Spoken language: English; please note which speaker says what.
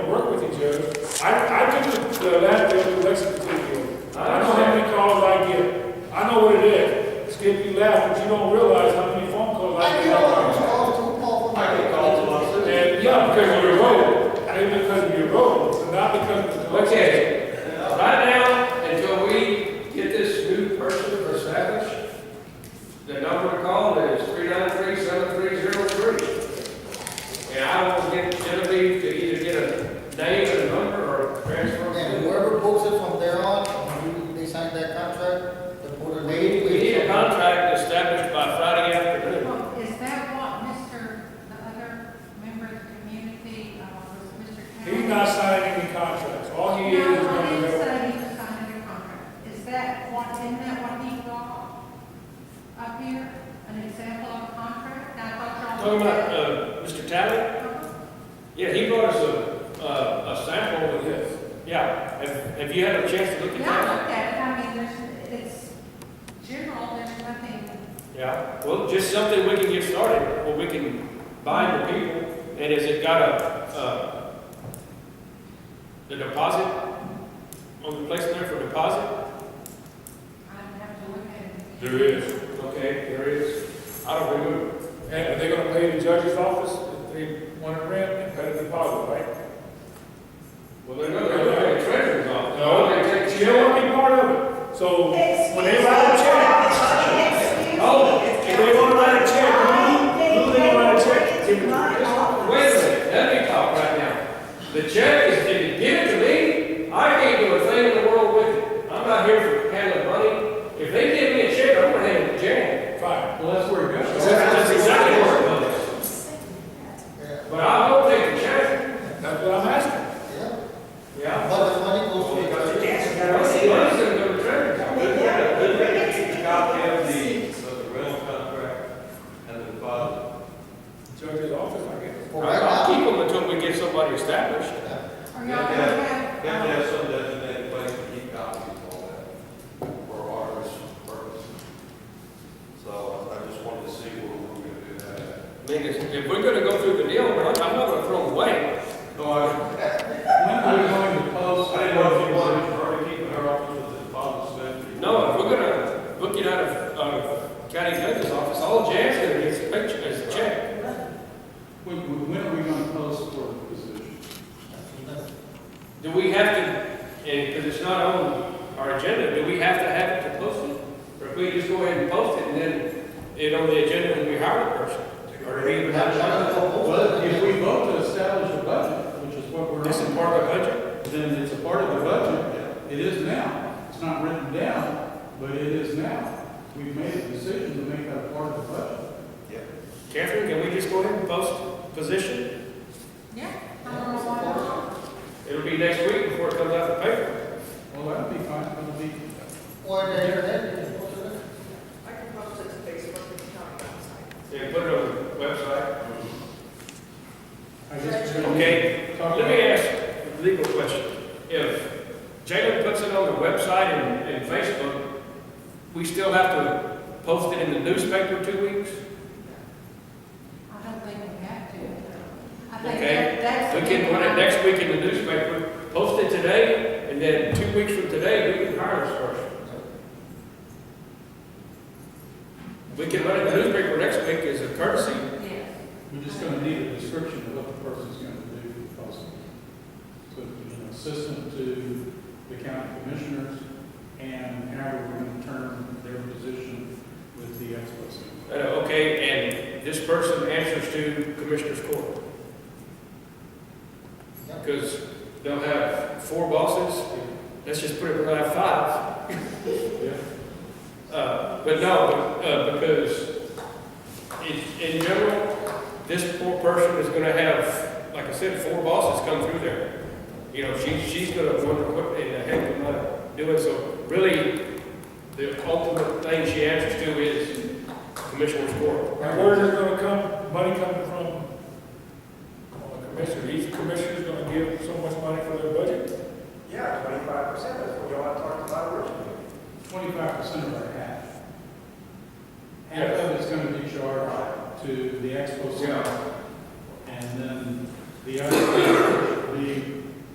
Speaker 1: I, I took the- the last day with Lexington Field. I know how many calls I get. I know what it is. It's getting you laugh, but you don't realize how many phone calls I
Speaker 2: I get all these
Speaker 1: get.
Speaker 2: calls to Paul from.
Speaker 3: I get called to us.
Speaker 1: And, yeah, because of your road, maybe because of your road, but not because of the collection.
Speaker 3: Okay, right now, until we get this new person established, the number to call is three nine three seven three zero three. And I will get Genevieve to either get a name and a number or transfer. it.
Speaker 2: And whoever books it from there on, when you, they sign that contract, the board.
Speaker 3: We, we need a contract established by Friday afternoon.
Speaker 4: Well, Oh, Is that what Mr., the other member of the community, uh, was Mr. Cameron?
Speaker 1: He's not signing any contracts. All he is is
Speaker 4: No, I
Speaker 1: going to
Speaker 4: didn't
Speaker 1: go.
Speaker 4: say he was signing a contract. Is that what, isn't that what he brought up here? An example of a contract? I thought y'all.
Speaker 3: Talking about, uh, Mr. Talley? Yeah, he brought us a, uh, a sample of this. Yeah, have, have you had a chance to look at
Speaker 4: Yeah, I
Speaker 3: that?
Speaker 4: looked at it. I mean, there's, it's general, there's nothing.
Speaker 3: Yeah, well, just something we can get started, or we can bind the people, and has it got a, uh, the deposit on the place there for deposit?
Speaker 4: I'd have to look at it.
Speaker 1: There is.
Speaker 3: Okay, there is, I don't remember.
Speaker 1: And are they going to pay the judge's office if they want to rent and pay the deposit, right?
Speaker 3: Well, they're not gonna pay the treasurer's office.
Speaker 1: No,
Speaker 3: They take-
Speaker 1: she don't want to be part of it. So when they write a check,
Speaker 3: Oh,
Speaker 1: if they want to write a check, who, who they want to check? Give it to them.
Speaker 3: Wait a minute, let me talk right now. The check is, if you give it to me, I can't do a thing in the world with it. I'm not here for handling money. If they give me a check, I'm gonna hand it to Jan.
Speaker 1: Fine.
Speaker 3: Well, that's where it goes. That's exactly where it goes.
Speaker 2: Yeah,
Speaker 3: But I will take the chance.
Speaker 1: That's what I'm asking.
Speaker 2: yeah,
Speaker 3: Yeah.
Speaker 2: but the money goes to. the-
Speaker 3: Money's gonna go to
Speaker 5: They
Speaker 3: treasury.
Speaker 5: have a good
Speaker 6: Copy of the, of the rental contract and the deposit.
Speaker 1: Judge's office, I guess.
Speaker 2: For right
Speaker 3: I'll
Speaker 2: now.
Speaker 3: keep them until we get somebody established.
Speaker 4: Are
Speaker 6: You
Speaker 4: y'all
Speaker 6: have
Speaker 4: gonna
Speaker 6: to have, you have to
Speaker 4: have,
Speaker 6: have some designated place to keep copies of all that for our purpose. So I just wanted to see where we we're gonna do that.
Speaker 3: I mean, if if we're gonna go through the deal, we're not- I'm not gonna throw them away.
Speaker 6: No, I,
Speaker 7: When are we going to post?
Speaker 6: I didn't know if you wanted her to keep her office with the deposit spent.
Speaker 3: No, if we're gonna book it out of, of county judge's office, all Jan's gonna get is a picture, is a check.
Speaker 7: When, when are we going to post for the position?
Speaker 3: Do we have to, and, cause it's not on our agenda, do we have to have it to post it? Or if we just go ahead and post it and then it on the agenda when we hire the person? Or do we even have to?
Speaker 7: Well, if we vote to establish a budget, which is what we're.
Speaker 3: This is part of the budget.
Speaker 7: Then it's a part of the budget. It is now. It's not written down, but it is now. We've made a decision to make that a part of the budget.
Speaker 3: Catherine, can we just go ahead and post position?
Speaker 4: yeah, I don't know why not.
Speaker 3: It'll be next week before it comes out the paper.
Speaker 7: Well, that'd be fine. That'll be,
Speaker 2: Or the internet, you can post it.
Speaker 5: I can post it to Facebook and not outside.
Speaker 3: Yeah, put it on the website.
Speaker 7: I guess. we're gonna
Speaker 3: Okay,
Speaker 7: talk
Speaker 3: let me ask a legal question. If Jalen puts it on the website and, and Facebook, we still have to post it in the newspaper two weeks?
Speaker 4: I don't think we have to. I think
Speaker 3: Okay,
Speaker 4: that- that's.
Speaker 3: we can run it next week in the newspaper, post it today, and then two weeks from today, we can hire this person. We can run it in the newspaper next week as a courtesy.
Speaker 4: Yes.
Speaker 7: We're just gonna need a description of what the person's gonna do for the cost. So, you know, assistant to the county commissioners, and how we're gonna term their position with the ex officio.
Speaker 3: Uh, Okay, and this person answers to Commissioner's Court.
Speaker 2: Yep.
Speaker 3: Because they'll have four bosses, let's just put it, we're gonna have five. Uh, But no, uh, because in- in general, this poor person is gonna have, like I said, four bosses come through there. You know, she, she's gonna wonder what in the heck am I doing? So really, the ultimate thing she answers to is Commissioner's Court.
Speaker 1: Now, where's it going to come, money coming from? Well, the commissioner, each commissioner's going to give so much money for their budget.
Speaker 5: Yeah, twenty-five percent, that's what y'all talked about originally.
Speaker 7: Twenty-five percent of our half. Half of it's gonna be charged to the ex officio, and then the other